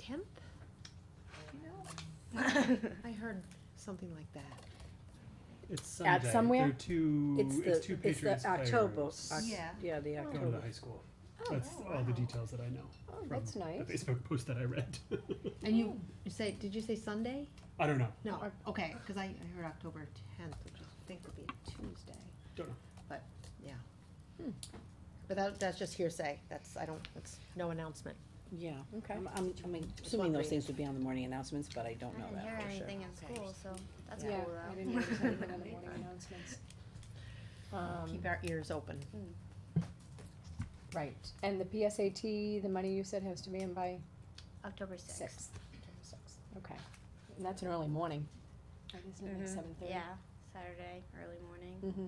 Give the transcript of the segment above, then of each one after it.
tenth? I heard something like that. It's Sunday. At somewhere? They're two, It's it's, the, two it's Patriots the October, players Oh, Oc- Yeah. yeah, the Going to the October. high school. That's all the details that I know. Oh, from that's nice. The Facebook post that I read. And you, you say, did you say Sunday? I don't know. No, or- okay, cause I, I heard October tenth, which I think would be a Tuesday, Don't know. yeah. But that, that's just hearsay, that's, I don't, that's no announcement. Yeah, Okay. I'm, I'm, I mean, Just assuming those wondering. things would be on the morning announcements, but I don't know I didn't hear that for sure. anything in Okay. school, so that's Yeah. cool I though. didn't notice anything on the morning announcements. Keep Um, our ears open. Hmm. right, and the PSAT, the money you said has to be in by October sixth, sixth. Okay, and that's an early morning. Like, Isn't Mm-hmm. it like Mhm. seven thirty? Mm-hmm. yeah, Saturday, early morning. Mm-hmm.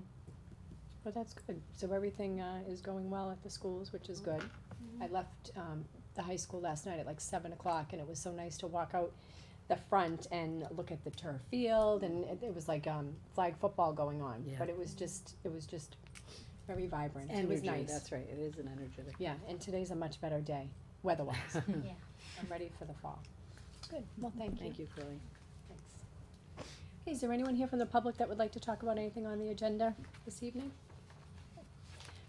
But that's good, so everything, uh, is going well at the schools, which is good. I left, um, the high school last night at like seven o'clock, and it was so nice to walk out the front and look at the turf field, and it, it was like, um, flag football going on. Yeah. But it was just, it was just very vibrant, it was Energy, nice. that's right, it is an energetic. Yeah, and today's a much better day, weather-wise. Yeah. I'm ready for the fall. Good, well, thank you. Thank you, Chloe. Thanks. Okay, is there anyone here from the public that would like to talk about anything on the agenda this evening?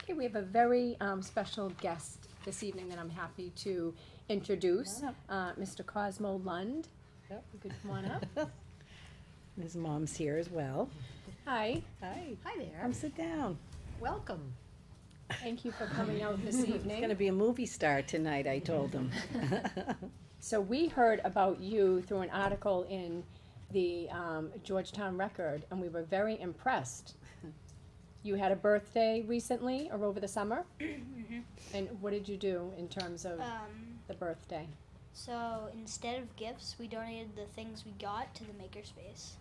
Okay, we have a very um, special guest this evening that I'm happy to introduce, Come on uh, Mr. Cosmo Lund. Yep. You could come on up. His mom's here as well. Hi, Hi, Hi there, come sit down. welcome. thank you for coming out this He's gonna evening. be a movie star tonight, I told him. So we heard about you through an article in the um, Georgetown Record, and we were very impressed. You had a birthday recently or over the summer? And what did you do in terms of Um, the birthday? so instead of gifts, we donated the things we got to the makerspace.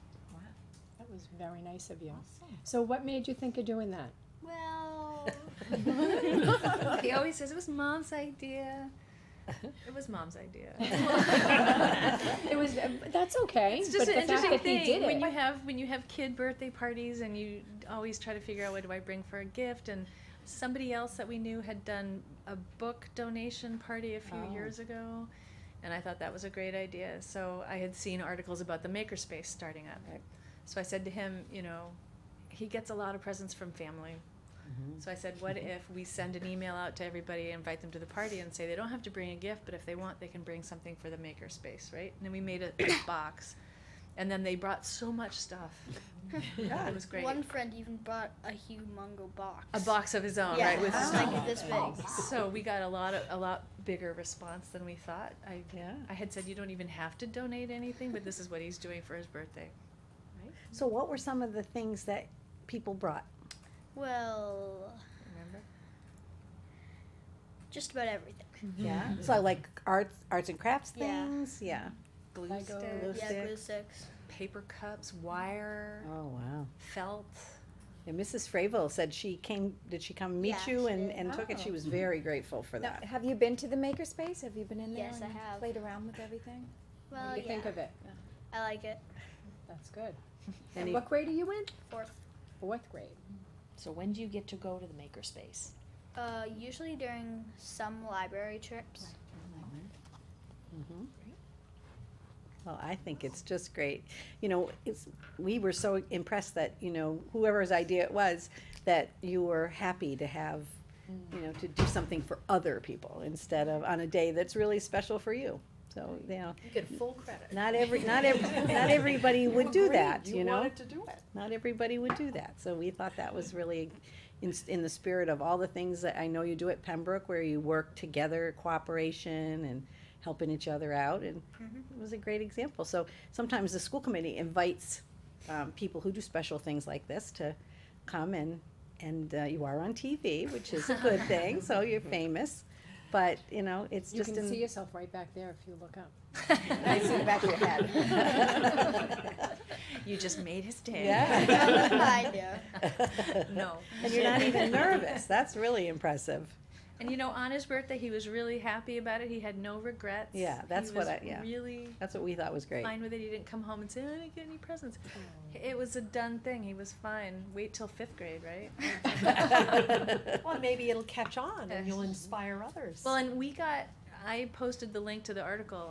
That was very nice of you. Oh, So what made you think of doing that? Well, Mm-hmm. he always says it was mom's idea. It was mom's idea. It was, that's okay, It's but just the an fact interesting that thing he did when you it. have when you have kid birthday parties and you always try to figure out what do I bring for a gift and somebody else that we knew had done a book donation party a few Oh. years ago and I thought that was a great idea. So I had seen articles about the makerspace starting up. Right. So I said to him, you know, he gets a lot of presents from family. So I said, what if we send an email out to everybody, invite them to the party, and say they don't have to bring a gift, but if they want, they can bring something for the makerspace, right? And then we made a, a box, and then they brought so much stuff. It was great. one friend even brought a humongo box. a box of his own, Yeah, right? With it's stuff. like this big. so we got a lot of a lot bigger response than we thought. I Yeah. I had said you don't even have to donate anything, but this is what he's doing for his birthday. So what were some of the things that people brought? Well, Remember? just about everything. Yeah. So like arts, arts and crafts Yeah. things, yeah. Glue oh, Lego. sticks, Yeah, glue sticks. paper cups, wire, Oh, wow. felt. And Mrs. Fravel said she came, did she come meet Yeah, you she and, did. and took it? She was very grateful for Now, that. have you been to the makerspace? Have you been in there Yes, I and have. played around with everything? What Well, do you yeah, think of it? I like it. That's good. And he- What grade are you in? Fourth. Fourth grade. So when do you get to go to the makerspace? Uh, usually during some library trips. Mhm. Well, I think it's just great. You know, it's, we were so impressed that, you know, whoever's idea it was, that you were happy to have, you know, to do something for other people instead of on a day that's really special for you. So, you know, You get full credit. not every, not every, not everybody would do that, you know? to do it. Not everybody would do that, so we thought that was really in, in the spirit of all the things that I know you do at Pembroke, where you work together, cooperation and helping each other out, and it was a great example. So sometimes the school committee invites, um, people who do special things like this to come and, and, uh, you are on TV, which is a good thing, so you're famous. But, you know, it's You just can see in, yourself right back there if you look up. I see the back of your head. You just made his day. Yeah. Kind of. no. and you're not even nervous, that's really impressive. And you know, on his birthday, he was really happy about it. He had no regrets. Yeah, that's he what was I- yeah. Really That's what we thought was great. fine with it. He didn't come home and say, "I didn't get any presents." It was a done thing. He was fine. Wait till fifth grade, right? Well, maybe it'll catch on and you'll inspire others. Well, and we got. I posted the link to the article,